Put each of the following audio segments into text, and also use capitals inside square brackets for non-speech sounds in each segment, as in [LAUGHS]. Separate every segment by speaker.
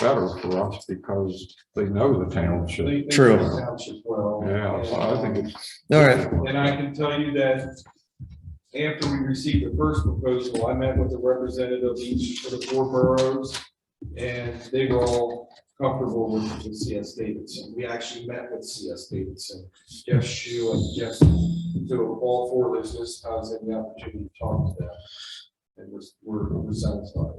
Speaker 1: better for us because they know the township.
Speaker 2: They- they
Speaker 3: True.
Speaker 2: should township well.
Speaker 1: Yeah, so I think it's.
Speaker 3: All right,
Speaker 2: And I can tell you that after we received the first proposal, I met with the representative of each of the four boroughs. And they were all comfortable with with CS Davidson. We actually met with CS Davidson, Jeff Shu and Jeff, to all four of those list houses and the opportunity to talk to them. And we're- we're, we're satisfied.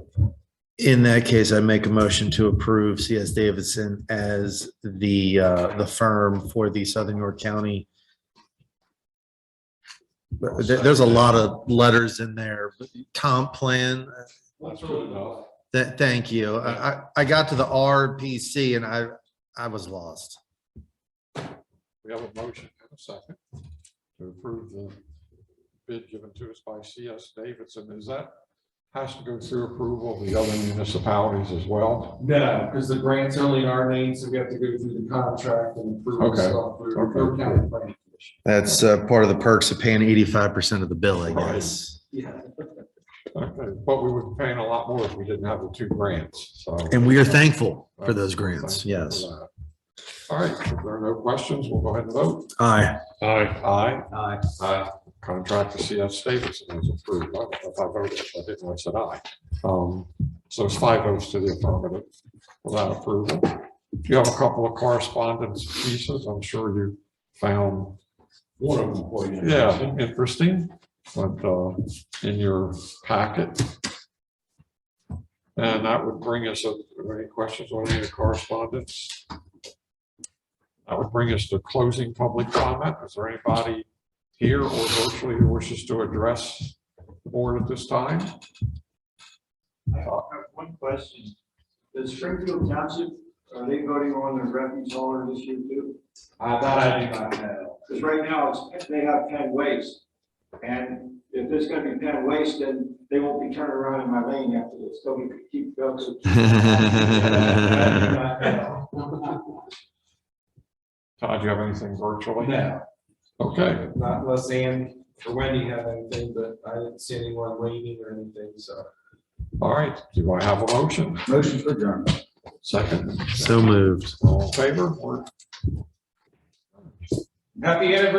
Speaker 3: in that case, I make a motion to approve CS Davidson as the, uh, the firm for the Southern York County. But there- there's a lot of letters in there, comp plan,
Speaker 2: That's really enough.
Speaker 3: that, thank you. I, I, I got to the RPC and I, I was lost.
Speaker 1: We have a motion and a second to approve the bid given to us by CS Davidson. Is that has to go through approval of the other municipalities as well?
Speaker 2: No, because the grant's only in our name, so we have to go through the contract and approve
Speaker 1: Okay.
Speaker 2: stuff through
Speaker 1: Okay.
Speaker 2: through county planning commission.
Speaker 3: That's, uh, part of the perks of paying eighty-five percent of the bill, I
Speaker 1: Right.
Speaker 3: guess.
Speaker 2: Yeah.
Speaker 1: Okay, But we would be paying a lot more if we didn't have the two grants, so.
Speaker 3: And we are thankful for those
Speaker 1: Thank
Speaker 3: grants,
Speaker 1: you for
Speaker 3: yes.
Speaker 1: that. All right, if there are no questions, we'll go ahead and vote.
Speaker 3: Aye. [LAUGHS]
Speaker 1: Aye. Aye.
Speaker 2: Aye.
Speaker 1: Aye. Contract to CS Davidson is approved. I don't know if I voted, I didn't, I said aye. Um, so it's five votes to the affirmative without approval. You have a couple of correspondence pieces. I'm sure you found,
Speaker 2: One of them for you.
Speaker 1: yeah, interesting, but, uh, in your packet. And that would bring us, up- are there any questions on any of the correspondence? That would bring us to closing public comment. Is there anybody here or virtually who wishes to address the board at this time?
Speaker 4: I have one question. Does Springfield Township, are they voting on their refuse hauler this year too?
Speaker 2: I thought I did not know.
Speaker 4: Because right now, it's, they have ten waste. And if there's gonna be ten waste, then they won't be turning around in my lane after this, so we could keep [LAUGHS] those.
Speaker 2: [LAUGHS]
Speaker 1: Todd, do you have anything virtually?
Speaker 2: No,
Speaker 1: Okay,
Speaker 2: not unless Ann or Wendy have anything, but I didn't see anyone waiting or anything, so.
Speaker 1: all right. Do I have a motion?
Speaker 4: Motion for adjournment.
Speaker 1: Second,
Speaker 3: So moved.
Speaker 1: all in favor? We're-
Speaker 2: Happy anniversary.